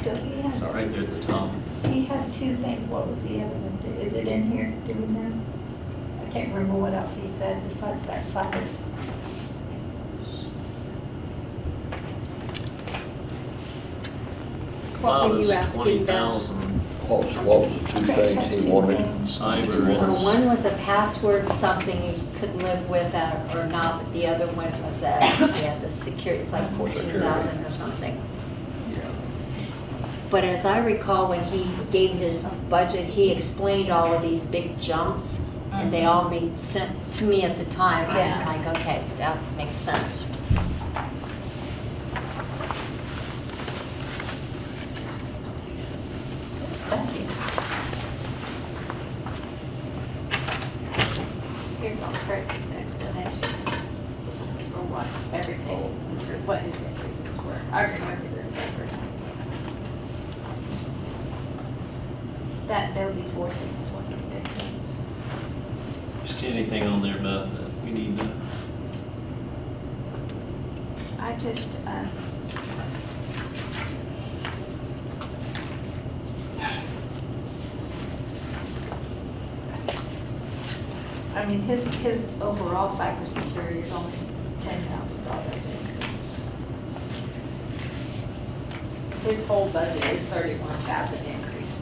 So he It's had, right there at the top. he had two things, what was the other one, is it in here, do we know? I can't remember what else he said besides that side. What were you Twenty asking about? thousand. What was, what was the two Okay, things two he wanted? things. Cyber He wanted- Well, Uh, one was a password, something you could live with uh, or not, but the other one was a, yeah, the security, it's like fourteen thousand or something. But as I recall, when he gave his budget, he explained all of these big jumps, and they all Mm-hmm. made sense to me at the time. Yeah. I'm like, okay, that makes sense. Thank you. Here's all Kurt's explanations for what everything, for what his increases were. I remember this paper. That Adobe four thing is one of the big things. You see anything on there, Beth, that we need to, I just, um, I mean, his, his overall cybersecurity is only ten thousand dollar increase. His whole budget is thirty-one thousand increase.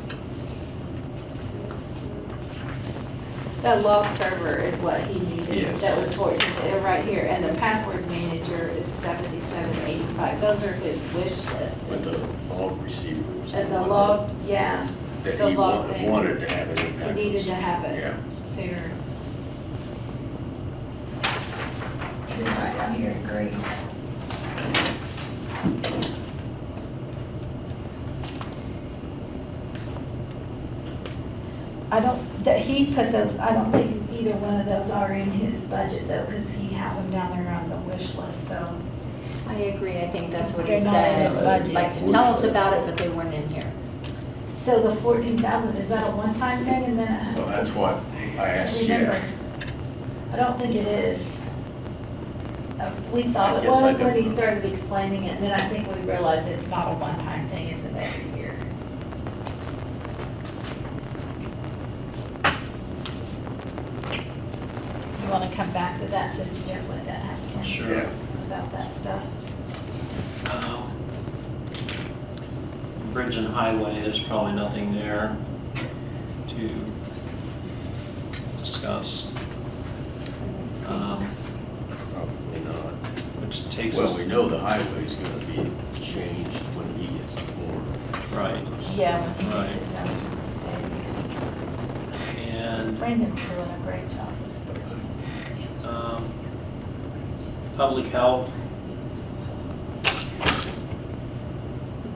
The log server is what he needed, Yes. that was towards, uh, right here, and the password manager is seventy-seven eighty-five, those are his wish list But the things. log receiver was the And the one log, yeah, that, the that he log wanted, thing. wanted to have it in he needed to have it Yeah, sooner. You're right, I'm here, agree. I don't, that he put those, I don't think either one of those are in his budget though, because he has them down there as a wish list, so. I agree, I think that's what he They're not in said. his budget. Like to tell us about it, but they weren't in here. So the fourteen thousand, is that a one-time thing and then? a- well, that's what I asked Remember, Jeff. I don't think it is. Uh, We thought I it guess I was when don't he know. started explaining it, and then I think we realized it's not a one-time thing, it's an every year. You wanna come back to that since Jeff went to ask him? Sure. Yeah. About that stuff? um, bridge and highway, there's probably nothing there to discuss. Um, Probably not. which takes Well, us, we know the highway's gonna be changed when he gets more. right, Yeah, when he Right. gets his numbers from the state. and, Brandon's doing a great job. um, public health,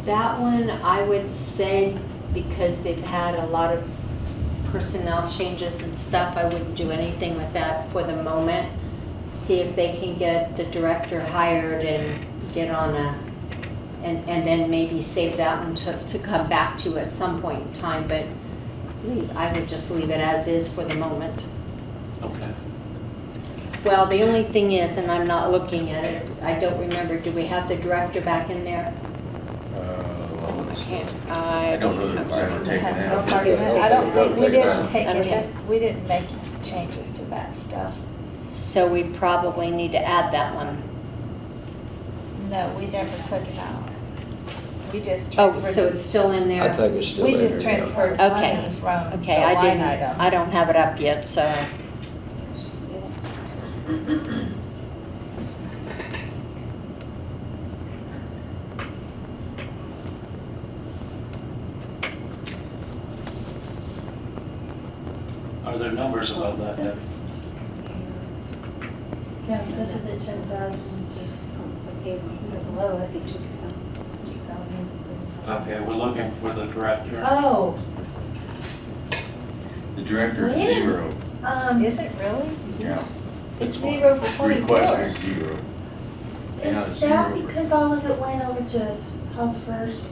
That one, I would say, because they've had a lot of personnel changes and stuff, I wouldn't do anything with that for the moment. See if they can get the director hired and get on a, and, and then maybe save that one to, to come back to at some point in time, but leave- I would just leave it as is for the moment. okay. Well, the only thing is, and I'm not looking at it, I don't remember, do we have the director back in there? Uh, I let's- can't, I. I don't know that it was ever taken Don't out. worry about it. I don't, think- we didn't take Take it any, out. we didn't make changes to that stuff. So we probably need to add that one. No, we never took it out. We just Oh, transferred. so it's still in there? I think it's still in We there. just transferred Okay. money from the Okay, I line didn't, I item. don't have it up yet, so, Are there numbers above that? Deb? Yeah, those are the ten thousands, okay, we are below it, they took it out. Took it out and- Okay, we're looking for the director. Oh, The director's Really? zero. um, Is it really? Yeah. It's That's why zero for Request 24. is zero. Yeah, is it's that zero for- because all of it went over to Health First?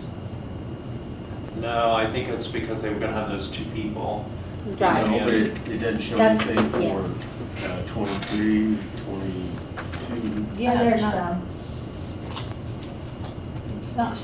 No, I think it's because they were gonna have those two people. right. No, but it, it doesn't show That's- anything yeah. for uh, twenty-three, twenty-two. Oh, Yeah, There's it's not, some. it's not